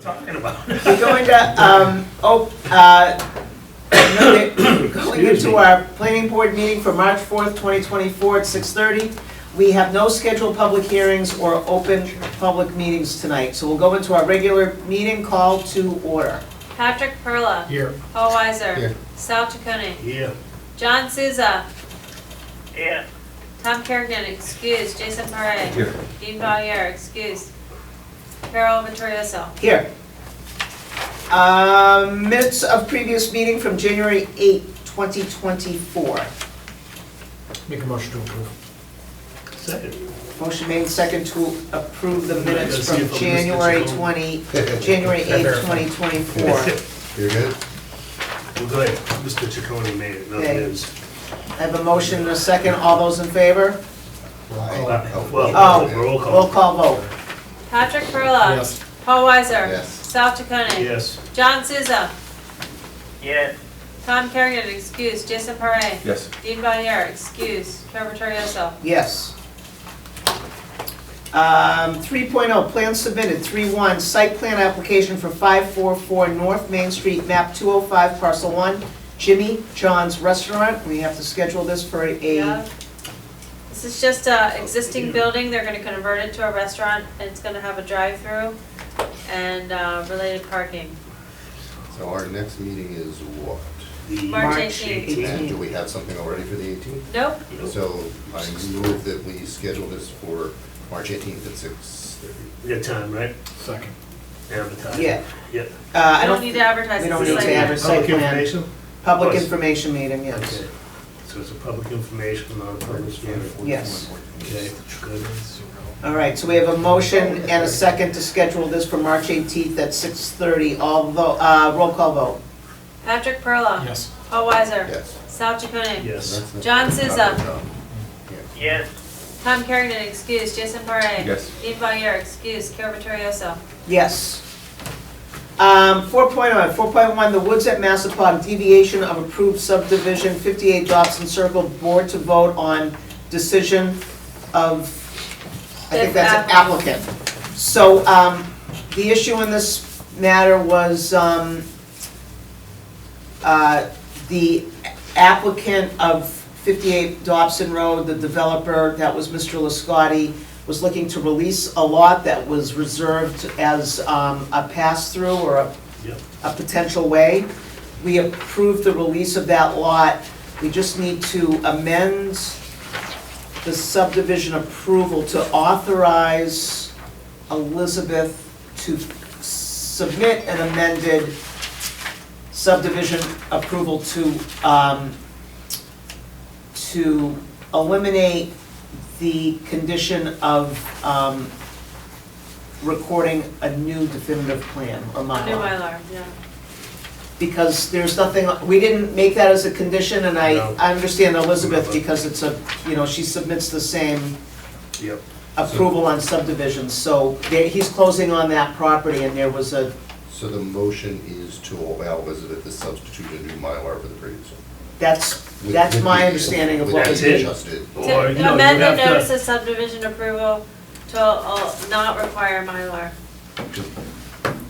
talking about? We're going to, um, oh, uh, no, we're going Excuse into me. our planning board meeting for March fourth, twenty twenty-four at six thirty. We have no scheduled public hearings or open public meetings tonight, so we'll go into our regular meeting call to order. Patrick Perla. Here. Paul Weiser. Here. Sal Chaconi. Yeah. John Souza. Yeah. Tom Kerrigan, excuse. Jason Parre. Here. Dean Valier, excuse. Carol Vittorioso. Here. Um, minutes of previous meeting from January eighth, twenty twenty-four. Make a motion to approve. Second. Motion made second to approve the minutes Let's see from if I'll miss this January at home. twenty, January eighth, twenty twenty-four. You're good? Well, good. Mr. Chaconi made it, not Okay. his. I have a motion and a second, all those in favor? Well, Oh. roll Roll call. call vote. Patrick Perla. Yes. Paul Weiser. Yes. Sal Chaconi. Yes. John Souza. Yeah. Tom Kerrigan, excuse. Jason Parre. Yes. Dean Valier, excuse. Carol Vittorioso. Yes. Um, 3.0, plan submitted, 3.1, site plan application for 544 North Main Street, map 205, parcel 1, Jimmy John's Restaurant. We have to schedule this for a, Yeah. This is just a existing building, they're gonna convert it to a restaurant, and it's gonna have a drive-through and uh, related parking. So our next meeting is what? The March March 18th. And do 18th. we have something already for the 18th? Nope, So I move that we schedule this for March 18th at 6:30. We got time, right? Second. Advertise. Yeah, Yeah. uh, I we don't, don't we need to advertise, don't it's need a site to plan. have a site plan. information? Public Yes. information meeting, yes. Okay. So it's a public information, not a public hearing. Yes. Okay, good. All right, so we have a motion and a second to schedule this for March 18th at 6:30, although, uh, roll call vote. Patrick Perla. Yes. Paul Weiser. Yes. Um, Sal Chaconi. Yes. That's it. John uh, Souza. Yes. Tom Kerrigan, excuse. Jason Parre. Yes. Dean Valier, excuse. Carol Vittorioso. Yes. Um, 4.1, 4.1, the Woods at Massapod, deviation of approved subdivision, 58 Dobson Circle, board to vote on decision of, I think that's an The applicant. So, um, the issue in this matter was, um, uh, the applicant of 58 Dobson Road, the developer, that was Mr. Lascotti, was looking to release a lot that was reserved as um, a pass-through or a Yep. a potential way. We approved the release of that lot. We just need to amend the subdivision approval to authorize Elizabeth to submit an amended subdivision approval to, um, to eliminate the condition of, um, recording a new definitive plan or New model Mylar, yeah. because there's nothing, we didn't make that as a condition, and I, No. I understand Elizabeth, Remember. because it's a, you know, she submits the same Yep. approval on subdivisions, so they- he's closing on that property, and there was a, So the motion is to allow Elizabeth to substitute a new Mylar for the previous one. that's, With- that's with my the- understanding of what with That's was it. the being. adjusted. Or, you To know, you amend the have notice to. of subdivision approval to uh, not require Mylar.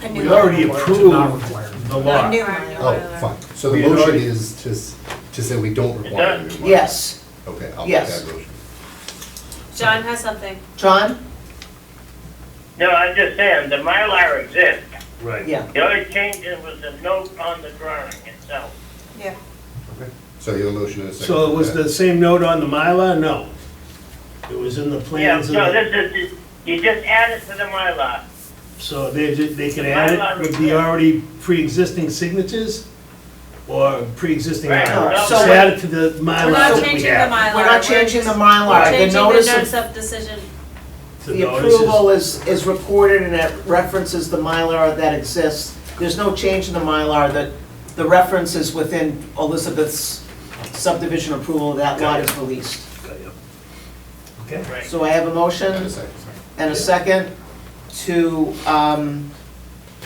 A new We already Mylar. To not require. approved the No, lot. new Oh, Mylar. fine. So the We had motion already- is to, s- to say we don't require a new Mylar. Yes, Okay, I'll make Yes. that motion. John has something. John? No, I'm just saying, the Mylar exists. Right. Yeah, The only change was the note on the drawing itself. Yeah. So you have a motion and a second. So it for was that. the same note on the Mylar? No. It was in the Yeah, plans. and so the- this is, you just add it to the Mylar. So they, ju- they can add it with the already pre-existing signatures or pre-existing Right. Mylar. No, Just so- add it to the Mylar We're not that we changing the have. Mylar. we're not changing the Mylar, the Changing the notice notice of, of decision. So the no, this is- approval is, is recorded, and it references the Mylar that exists. There's no change in the Mylar, that, the reference is within Elizabeth's subdivision approval, that lot is released. Okay. Right. So I have a And a motion second. and a second to um,